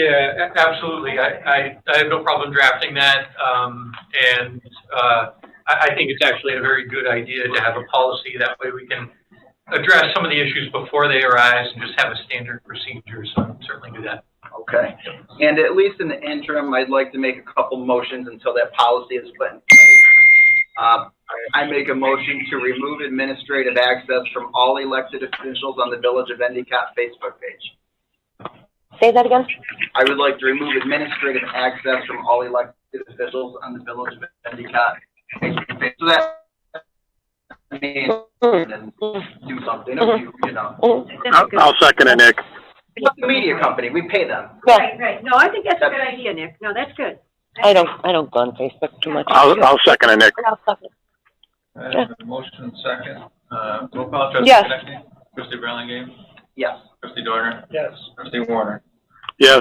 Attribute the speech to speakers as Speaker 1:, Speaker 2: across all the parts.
Speaker 1: Yeah, a- absolutely. I, I, I have no problem drafting that. Um, and, uh, I, I think it's actually a very good idea to have a policy. That way we can address some of the issues before they arise and just have a standard procedure. So I'll certainly do that.
Speaker 2: Okay. And at least in the interim, I'd like to make a couple motions until that policy is put in place. Uh, I make a motion to remove administrative access from all elected officials on the Village of Endicott Facebook page.
Speaker 3: Say that again?
Speaker 2: I would like to remove administrative access from all elected officials on the Village of Endicott Facebook page. So that I mean,
Speaker 3: Mm-hmm.
Speaker 2: and do something, if you, you know.
Speaker 4: I'll, I'll second it, Nick.
Speaker 2: It's a media company, we pay them.
Speaker 3: Yeah,
Speaker 5: Right, right. No, I think that's a good idea, Nick. No, that's good.
Speaker 3: I don't, I don't go on Facebook too much.
Speaker 4: I'll, I'll second it, Nick.
Speaker 6: I have a motion and second. Uh, roll call, trustee
Speaker 3: Yes.
Speaker 6: Connectney? Trustee Burlingame?
Speaker 2: Yes.
Speaker 6: Trustee Dorner? Yes. Trustee Warner?
Speaker 4: Yes,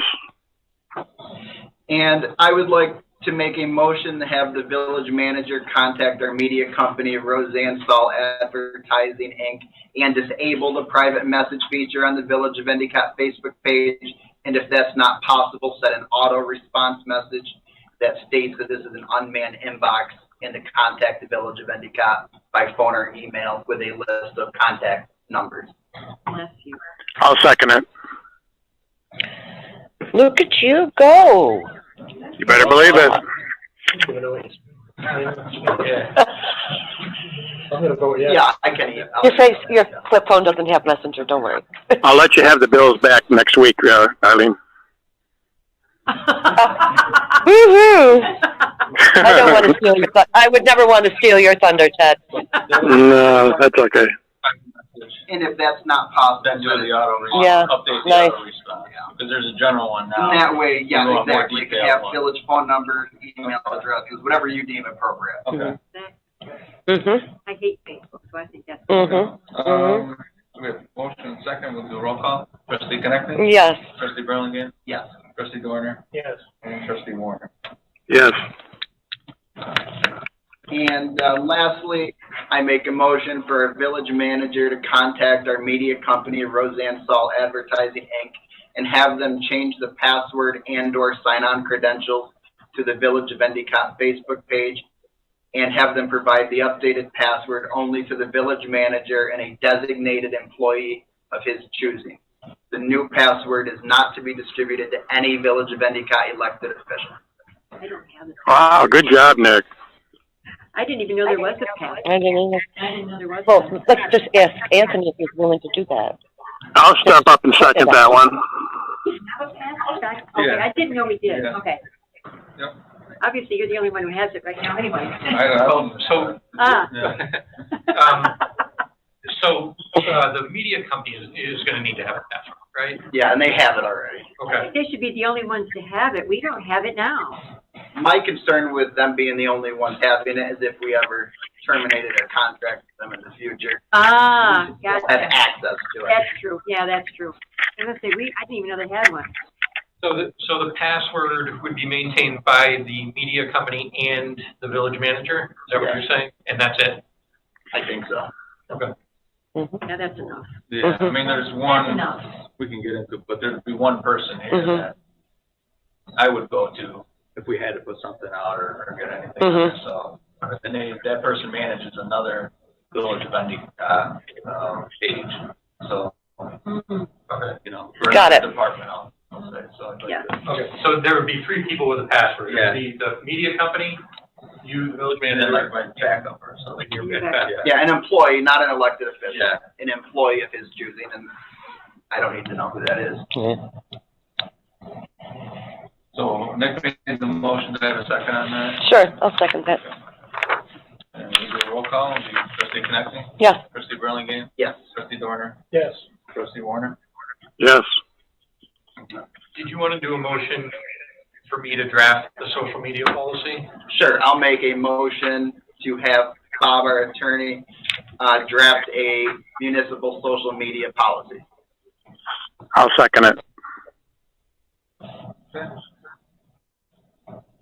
Speaker 2: And I would like to make a motion to have the village manager contact our media company, Roseanne Stahl Advertising, Inc., and disable the private message feature on the Village of Endicott Facebook page. And if that's not possible, set an auto response message that states that this is an unmanned inbox and to contact the Village of Endicott by phone or email with a list of contact numbers.
Speaker 5: Bless you.
Speaker 4: I'll second it.
Speaker 3: Look at you go.
Speaker 4: You better believe it.
Speaker 1: Yeah.
Speaker 7: I'm gonna vote yes.
Speaker 2: Yeah, I can. I'll-
Speaker 3: Your face, your flip phone doesn't have messenger, don't worry.
Speaker 4: I'll let you have the bills back next week, uh, Eileen.
Speaker 3: Woo-hoo! I don't want to steal your, thu- I would never want to steal your thunder, Ted.
Speaker 4: No, that's okay.
Speaker 2: And if that's not possible.
Speaker 6: Then do
Speaker 2: set
Speaker 6: the
Speaker 2: it-
Speaker 6: auto response.
Speaker 3: Yeah,
Speaker 6: Update the
Speaker 3: nice.
Speaker 6: auto response. Because there's a general one
Speaker 2: In
Speaker 6: now.
Speaker 2: that way,
Speaker 6: You
Speaker 2: yeah,
Speaker 6: want more
Speaker 2: exactly. You can
Speaker 6: detailed
Speaker 2: have
Speaker 6: one.
Speaker 2: village phone numbers, email addresses, whatever you deem appropriate.
Speaker 6: Okay.
Speaker 3: Mm-hmm,
Speaker 5: I hate Facebook, so I think that's.
Speaker 3: mm-hmm,
Speaker 6: Um, we have motion and second. We'll do roll call. Trustee Connectney?
Speaker 3: yes.
Speaker 6: Trustee Burlingame?
Speaker 2: Yes.
Speaker 6: Trustee Dorner?
Speaker 7: Yes.
Speaker 6: And trustee Warner?
Speaker 4: Yes,
Speaker 2: And uh, lastly, I make a motion for a village manager to contact our media company, Roseanne Saul Advertising, Inc., and have them change the password and/or sign-on credentials to the Village of Endicott Facebook page, and have them provide the updated password only to the village manager and a designated employee of his choosing. The new password is not to be distributed to any Village of Endicott elected official.
Speaker 5: I don't have it.
Speaker 4: wow, good job, Nick.
Speaker 5: I didn't even know there was a pass.
Speaker 3: I didn't even,
Speaker 5: I didn't know there was.
Speaker 3: well, let's just ask Anthony if he's willing to do that.
Speaker 4: I'll step up and second that one.
Speaker 5: Okay, I didn't know we did. Okay.
Speaker 6: Yep.
Speaker 5: Obviously, you're the only one who has it right now anyway.
Speaker 6: I don't know.
Speaker 1: Um, So-
Speaker 5: Ah.
Speaker 6: Yeah.
Speaker 1: Um, So, uh, the media company is, is going to need to have a password, right?
Speaker 2: Yeah, and they have it already.
Speaker 1: Okay.
Speaker 5: They should be the only ones to have it. We don't have it now.
Speaker 2: My concern with them being the only ones having it is if we ever terminated a contract with them in the future,
Speaker 5: Ah,
Speaker 2: we'll
Speaker 5: gotcha.
Speaker 2: have access to it.
Speaker 5: That's true. Yeah, that's true. I was gonna say, we, I didn't even know they had one.
Speaker 1: So the, so the password would be maintained by the media company and the village manager? Is that what you're saying? And that's it?
Speaker 2: I think so.
Speaker 5: Yeah, that's enough.
Speaker 6: Yeah, I mean, there's one
Speaker 5: Enough.
Speaker 6: we can get into, but there'd be one person here
Speaker 3: Mhm.
Speaker 6: that I would go to if we had to put something out or, or get anything.
Speaker 3: Mhm.
Speaker 6: So, and they, that person manages another village vending uh, um, page. So,
Speaker 5: Mm-hmm.
Speaker 6: you know, for
Speaker 3: Got
Speaker 6: another
Speaker 3: it.
Speaker 6: department, I'll, I'll say. So, I'd like
Speaker 5: Yeah.
Speaker 6: to-
Speaker 1: Okay, so there would be three people with a password. It would
Speaker 6: Yeah.
Speaker 1: be the media company, you, the village
Speaker 6: and then like
Speaker 1: manager,
Speaker 6: my backup or something.
Speaker 1: and your
Speaker 5: Yeah.
Speaker 1: password.
Speaker 2: Yeah, an employee, not an elected official,
Speaker 6: Yeah.
Speaker 2: an employee of his choosing, and I don't need to know who that is.
Speaker 6: So Nick made the motion. Do I have a second on that?
Speaker 3: Sure, I'll second that,
Speaker 6: And we do a roll call. Do you, Trustee Connectney?
Speaker 3: yeah.
Speaker 6: Trustee Burlingame?
Speaker 2: Yes.
Speaker 6: Trustee Dorner?
Speaker 7: Yes.
Speaker 6: Trustee Warner?
Speaker 4: Yes,
Speaker 1: Did you want to do a motion for me to draft the social media policy?
Speaker 2: Sure, I'll make a motion to have Bob, our attorney, uh, draft a municipal social media policy.
Speaker 4: I'll second it.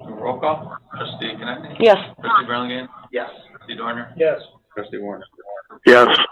Speaker 6: Roll call. Trustee Connectney?
Speaker 3: Yes,
Speaker 6: Trustee Burlingame?
Speaker 2: Yes.
Speaker 6: Trustee Dorner?
Speaker 7: Yes.
Speaker 6: Trustee Warner?
Speaker 4: Yes,